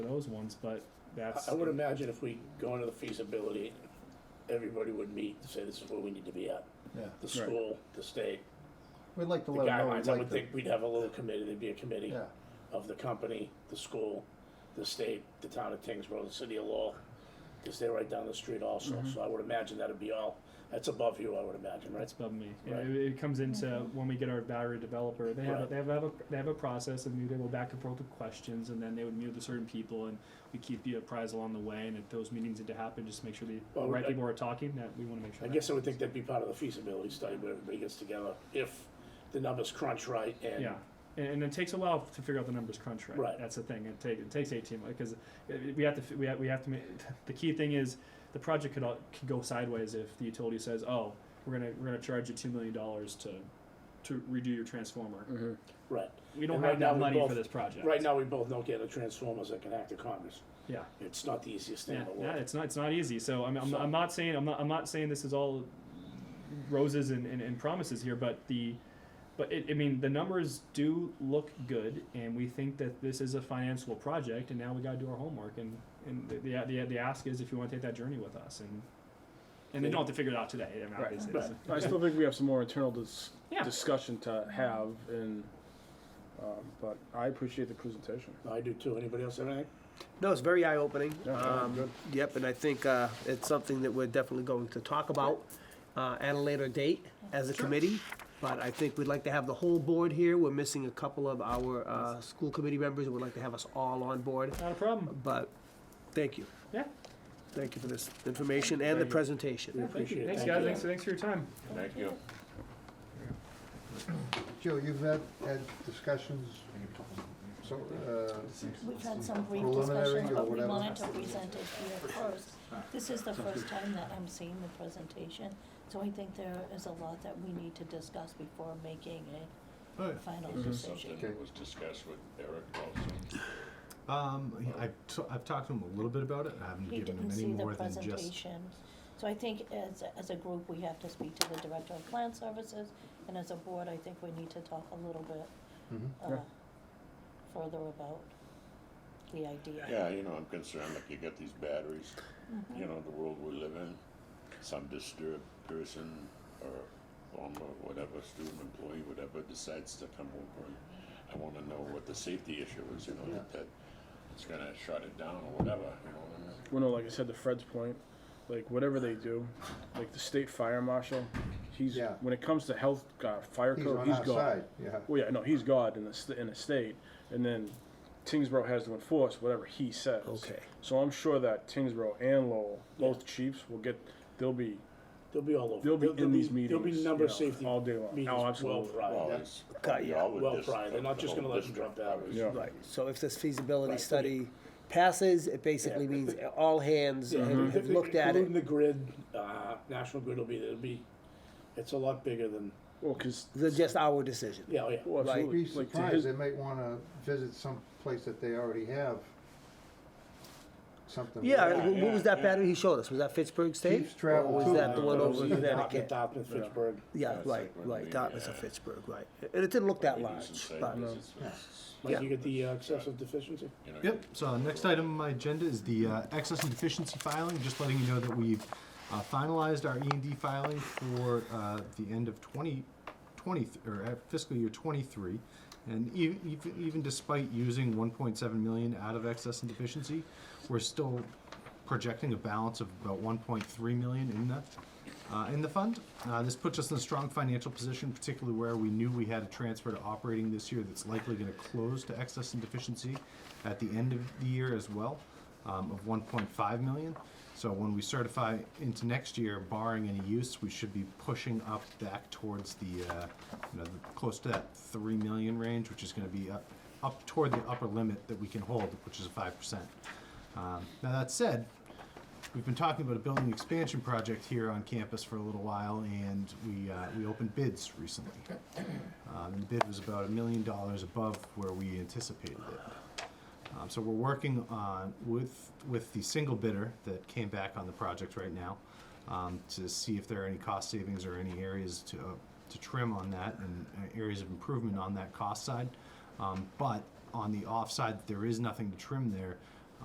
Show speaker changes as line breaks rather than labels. those ones, but that's.
I would imagine if we go into the feasibility, everybody would meet to say this is where we need to be at.
Yeah,
The school, the state,
we'd like to
the
let them know. we'd
guidelines. I
like
would
to-
think we'd have a little committee, there'd be a committee
Yeah,
of the company, the school, the state, the town of Tingsboro, the city of Lowell, because they're right down the street
Mm-hmm.
also. So I would imagine that'd be all, that's above you, I would imagine, right?
That's above me.
Right.
It, it comes into when we get our battery developer. They have a,
Right.
they have, a they have a process, and they go back and forth with questions, and then they would meet with certain people, and we keep you apprised along the way. And if those meetings need to happen, just make sure the
Well,
right
I-
people are talking. That we want to make sure.
I
that-
guess I would think that'd be part of the feasibility study where everybody gets together, if the numbers crunch right and.
Yeah, and, and it takes a while to figure out the numbers crunch right.
Right.
That's the thing. It takes it takes eighteen because we have to fi- we have, we have to make the key thing is the project could all, could go sideways if the utility says oh we're gonna we're gonna charge you two million dollars to to redo your transformer.
Right.
We don't have
Mm-hmm. And right now
that
we
money for
both-
this project.
Right now, we both know get a transformers that can act to Congress.
Yeah.
It's not the easiest thing
Yeah,
in the
yeah,
world.
it's not it's not easy. So I'm, I'm,
So-
I'm not saying I'm not, I'm not saying this is all roses and, and, and promises here, but the but it, I mean the numbers do look good, and we think that this is a financeable project, and now we got to do our homework, and and the, the the the ask is if you want to take that journey with us, and and they don't have to figure it out today. I mean,
Right.
obviously,
Right.
I still think we have some more internal dis-
Yeah.
discussion to have, and um, but I appreciate the presentation.
I do too. Anybody else have anything?
No, it's very eye-opening.
Yeah,
Um,
good.
Yep, and I think uh, it's something that we're definitely going to talk about uh, at a later date as a committee. But I think we'd like to have the whole board here. We're missing a couple of our uh, school committee members. We'd like to have us all on board.
not a problem.
But thank you.
Yeah,
Thank you for this information and the
Thank you.
presentation.
thank you.
Appreciate it.
Thanks,
Thank
guys.
you.
Thanks, thanks for your time.
Thank you.
Joe, you've had, had discussions, so, uh,
We've had some brief
Preliminary
discussions,
or
but we
whatever.
wanted to present it here first. This is the first time that I'm seeing the presentation, so I think there is a lot that we need to discuss before making a final
Mm-hmm.
This is something
decision.
that was discussed with Eric also.
Um, I've, t- I've talked to him a little bit about it. I haven't
He
given
didn't
him any
see the
more than just.
presentation. So I think as, as a group, we have to speak to the Director of Plant Services, and as a board, I think we need to talk a little bit
Mm-hmm.
uh,
Yeah.
further about the idea.
Yeah, you know, I'm concerned, like you got these batteries, you know, the world we live in. Some disturbed person or former whatever, student employee, whatever, decides to come over and I wanna know what the safety issue is, you know, that, that it's gonna shut it down or whatever, you know what I mean?
Well, no, like I said, to Fred's point, like whatever they do, like the state fire marshal, he's
Yeah.
when it comes to health uh, fire
he's
code,
on
he's
our
God.
side, yeah.
Well, yeah, no, he's God in the st- in the state, and then Tingsboro has to enforce whatever he says.
Okay.
So I'm sure that Tingsboro and Lowell, both chiefs, will get. They'll be
They'll be all over.
they'll be
There'll-
in
there'll
these meetings.
There'll be
you
number
know,
safety.
all day long.
meetings
Oh,
well
absolutely.
pried.
Well,
Yeah.
it's,
Got
you
ya.
always
Well
dis-
pried. They're not just gonna let them
district
drop batteries.
Yeah.
Right, so if this feasibility
Right.
study passes, it basically means all hands
Mm-hmm.
have have uh-huh. looked at
Including the
it.
grid, uh, National Grid will be, it'll be, it's a lot bigger than,
Well, because
They're just our decision.
yeah, oh, yeah.
well,
Right.
absolutely.
Be
Like, to
surprised,
his-
they might wanna visit some place that they already have something.
Yeah,
Yeah,
wh- what was
yeah,
that battery he showed us? Was that Pittsburgh State?
Chiefs travel
Or was
too.
that the one
Uh,
over
either
in
Dartmouth,
Connecticut?
Dartmouth, Pittsburgh.
Yeah,
Yeah,
it's
right,
like when
right,
we,
Dartmouth or
uh,
Pittsburgh, right. It it didn't look that large,
Ladies and
but
safety, it's- it's-
Mike, you
Yeah.
get the uh, excessive deficiency?
you know,
Yep. So uh, next item on my agenda is the uh, excess and deficiency filing. Just letting you know that we've uh, finalized our E and D filing for uh, the end of 2020 or uh, fiscal year 23, and e- even even despite using 1.7 million out of excess and deficiency, we're still projecting a balance of about 1.3 million in the uh, in the fund. Uh, this puts us in a strong financial position, particularly where we knew we had a transfer to operating this year that's likely going to close to excess and deficiency at the end of the year as well um, of 1.5 million. So when we certify into next year, barring any use, we should be pushing up back towards the uh, you know the, close to that 3 million range, which is going to be up up toward the upper limit that we can hold, which is 5%. Um, now that said, We've been talking about a building expansion project here on campus for a little while, and we, uh, we opened bids recently. Um, and the bid was about a million dollars above where we anticipated it. Um, so we're working on with with the single bidder that came back on the project right now um, to see if there are any cost savings or any areas to uh, to trim on that and uh, areas of improvement on that cost side. Um, but on the off side, there is nothing to trim there.